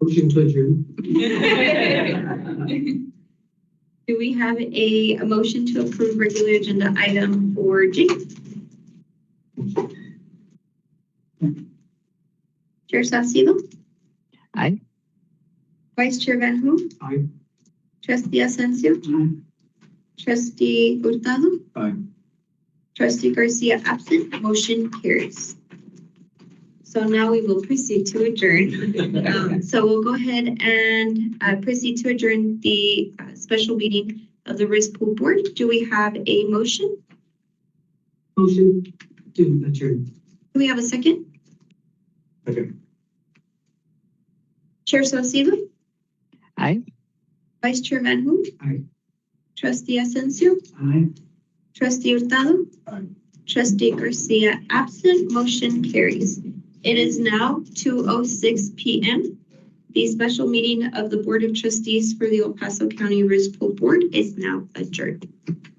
Motion to adjourn. Do we have a, a motion to approve regular agenda item for G? Chair Salcedo? Aye. Vice Chair Van Hoen? Aye. Trustee Asensio? Aye. Trustee Hurtado? Aye. Trustee Garcia absent, motion carries. So now we will proceed to adjourn. Um, So we'll go ahead and uh, proceed to adjourn the uh, special meeting of the Riz Pool Board. Do we have a motion? Motion to adjourn. Do we have a second? Okay. Chair Salcedo? Aye. Vice Chair Van Hoen? Aye. Trustee Asensio? Aye. Trustee Hurtado? Aye. Trustee Garcia absent, motion carries. It is now two oh six P M. The special meeting of the Board of Trustees for the El Paso County Risk Pool Board is now adjourned.